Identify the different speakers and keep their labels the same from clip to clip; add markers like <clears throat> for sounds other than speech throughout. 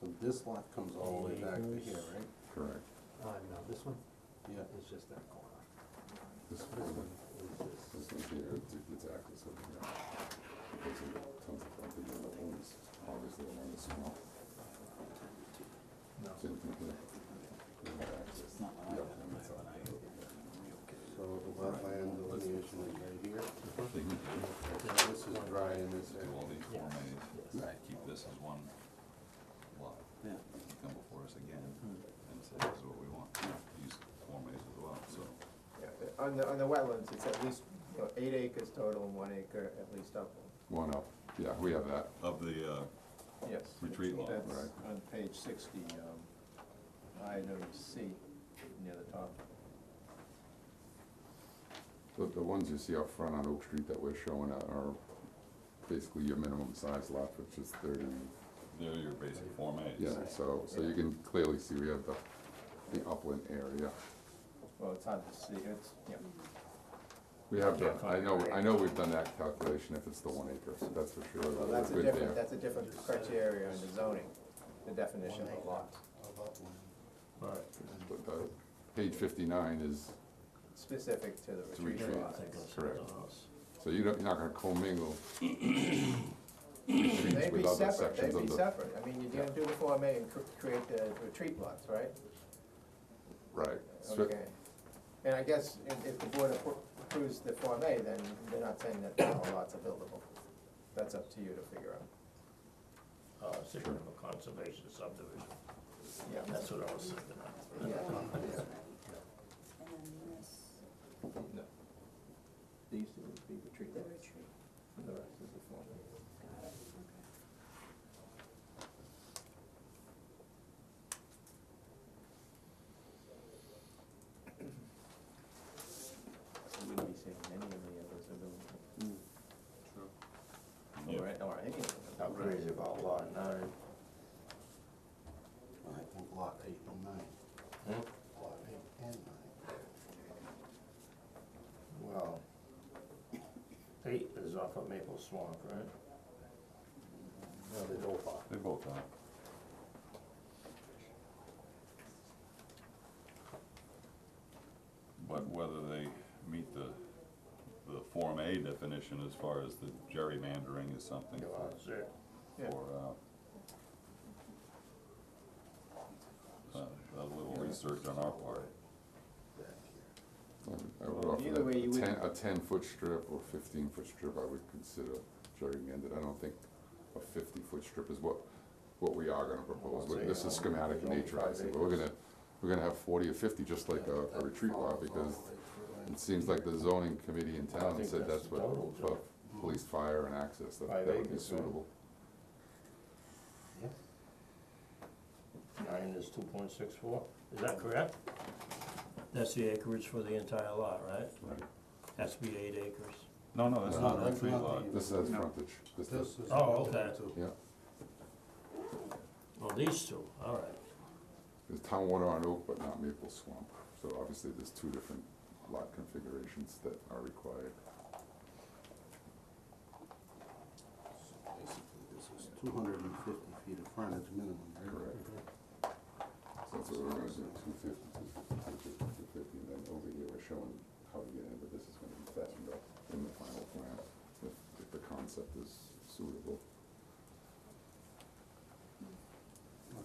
Speaker 1: So this lot comes all the way back to here, right?
Speaker 2: Correct.
Speaker 3: Uh, no, this one
Speaker 1: Yeah.
Speaker 3: is just that corner.
Speaker 2: This
Speaker 3: This
Speaker 2: one,
Speaker 3: one is
Speaker 2: this one here, it's exactly so. There's tons of property that owns, obviously, along the swamp.
Speaker 3: No.
Speaker 2: So you can get- you have access. Yep, and it's all-
Speaker 1: So the wetland delineation is right here.
Speaker 4: They can
Speaker 1: Now, This is dry in this
Speaker 4: do all
Speaker 1: area.
Speaker 4: these Form As,
Speaker 3: Yes.
Speaker 4: and keep this as one lot.
Speaker 5: Yeah.
Speaker 4: You can Come before us again and say, this is what we want, use Form As as well, so.
Speaker 6: Yeah, on the, on the wetlands, it's at least, you know, eight acres total and one acre at least upland,
Speaker 2: One up, yeah, we have that.
Speaker 4: Of the, uh,
Speaker 6: yes.
Speaker 4: Retreat lot,
Speaker 6: That's
Speaker 2: right.
Speaker 6: on page sixty, um, item C, near the top.
Speaker 2: The, the ones you see up front on Oak Street that we're showing are- are basically your minimum size lot, which is thirty.
Speaker 4: they're your basic Form As.
Speaker 2: Yeah, so, so you can clearly see we have the, the upland area.
Speaker 6: Well, it's on the C, it's, yeah,
Speaker 2: We have
Speaker 6: Yeah,
Speaker 2: done, I
Speaker 6: fine.
Speaker 2: know, I know we've done that calculation if it's the one acre, so that's for sure.
Speaker 6: well,
Speaker 2: we're
Speaker 6: that's a
Speaker 2: good
Speaker 6: different,
Speaker 2: there.
Speaker 6: that's a different criteria in the zoning, the definition of a lot.
Speaker 2: But the page fifty-nine is,
Speaker 6: Specific to the
Speaker 2: It's a
Speaker 6: retreat
Speaker 2: retreat.
Speaker 6: lot.
Speaker 2: Correct. so you don't, you're not gonna
Speaker 6: <clears throat>
Speaker 2: commingle retreats
Speaker 6: They'd be
Speaker 2: with other
Speaker 6: separate,
Speaker 2: sections
Speaker 6: they'd
Speaker 2: of
Speaker 6: be
Speaker 2: the,
Speaker 6: separate, I mean, you're gonna do the Form A and cr- create the retreat lots, right?
Speaker 2: right. So-
Speaker 6: Okay, and I guess if, if the board appro- approves the Form A, then they're not saying that all lots are buildable. That's up to you to figure out.
Speaker 7: uh, section of a conservation subdivision,
Speaker 6: Yeah,
Speaker 7: that's what I was thinking of.
Speaker 6: yeah.
Speaker 8: And then this,
Speaker 6: These two would be retreat
Speaker 8: the retreat,
Speaker 6: the rest is the Form
Speaker 8: got it, okay.
Speaker 6: You wouldn't be saying any of the others are buildable.
Speaker 4: Yeah.
Speaker 6: Or, or any of them. I'm crazy about lot nine.
Speaker 1: I think lot eight and nine.
Speaker 7: Hmm?
Speaker 1: Lot eight and nine.
Speaker 6: Well,
Speaker 7: Eight is off of Maple Swamp, right?
Speaker 1: No, they don't lot.
Speaker 4: They both are. But whether they meet the, the Form A definition as far as the gerrymandering is something for,
Speaker 7: That's it.
Speaker 6: Yeah.
Speaker 4: for, uh, uh, a little research on our part.
Speaker 2: I would
Speaker 6: Well,
Speaker 2: offer
Speaker 6: either way, you
Speaker 2: that a ten,
Speaker 6: wouldn't-
Speaker 2: a ten-foot strip or fifteen-foot strip, I would consider gerrymandered. I don't think a fifty-foot strip is what, what we are gonna propose.
Speaker 7: Well,
Speaker 2: But This is
Speaker 7: it's, uh,
Speaker 2: schematic in
Speaker 7: only
Speaker 2: nature, I
Speaker 7: five
Speaker 2: see, but we're
Speaker 7: acres.
Speaker 2: gonna, we're gonna have forty or fifty, just like a, a retreat lot, because it seems like the zoning committee in
Speaker 7: I
Speaker 2: town
Speaker 7: think
Speaker 2: said
Speaker 7: that's
Speaker 2: that's
Speaker 7: the total,
Speaker 2: what,
Speaker 7: Joe.
Speaker 2: for police, fire and access, that, that
Speaker 7: Five
Speaker 2: would be
Speaker 7: acres, right?
Speaker 2: suitable.
Speaker 7: Nine is two point six four, is that correct? That's the acreage for the entire lot, right?
Speaker 2: Right.
Speaker 7: Has to be eight acres.
Speaker 4: No, no, that's not
Speaker 1: No,
Speaker 4: a
Speaker 1: that's
Speaker 4: retreat
Speaker 1: not
Speaker 4: lot.
Speaker 1: the-
Speaker 2: This has frontage, this
Speaker 1: This
Speaker 2: does,
Speaker 1: is.
Speaker 7: Oh, okay.
Speaker 2: yeah.
Speaker 7: Well, these two, all right.
Speaker 2: There's town water on Oak, but not Maple Swamp, so obviously there's two different lot configurations that are required.
Speaker 1: Basically, this is two hundred and fifty feet of frontage minimum, right?
Speaker 2: Correct. So that's what we're gonna do, two fifty, two fifty, two fifty, and then over here, we're showing how to get in, but this is gonna be fattened up in the final plan, if, if the concept is suitable.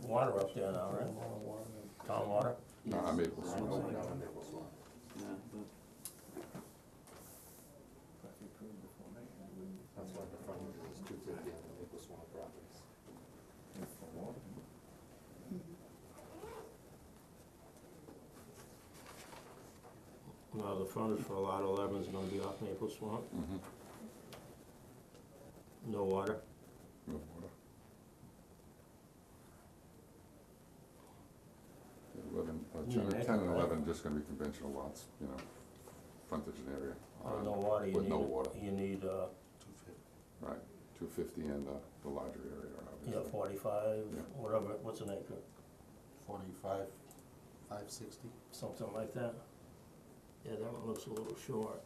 Speaker 7: Water up there now, right? Town water?
Speaker 2: Not on Maple Swamp.
Speaker 5: Yeah, but
Speaker 6: But if you approve the Form A, you wouldn't-
Speaker 1: That's why the frontage is two fifty on the Maple Swamp properties.
Speaker 6: For what?
Speaker 7: No, the frontage for lot eleven is gonna be off Maple Swamp,
Speaker 2: Mhm.
Speaker 7: no water.
Speaker 2: No water. Eleven, uh,
Speaker 7: Yeah,
Speaker 2: ten,
Speaker 7: that-
Speaker 2: ten and eleven, just gonna be conventional lots, you know, frontage and area.
Speaker 7: With
Speaker 2: on-
Speaker 7: Oh, no water, you
Speaker 2: With
Speaker 7: need,
Speaker 2: no water,
Speaker 7: you need, uh,
Speaker 1: Two fifty.
Speaker 2: right, two fifty and, uh, the larger area, obviously.
Speaker 7: yeah, forty-five,
Speaker 2: Yeah.
Speaker 7: whatever, what's an acre,
Speaker 1: Forty-five, five sixty.
Speaker 7: something like that? Yeah, that one looks a little short.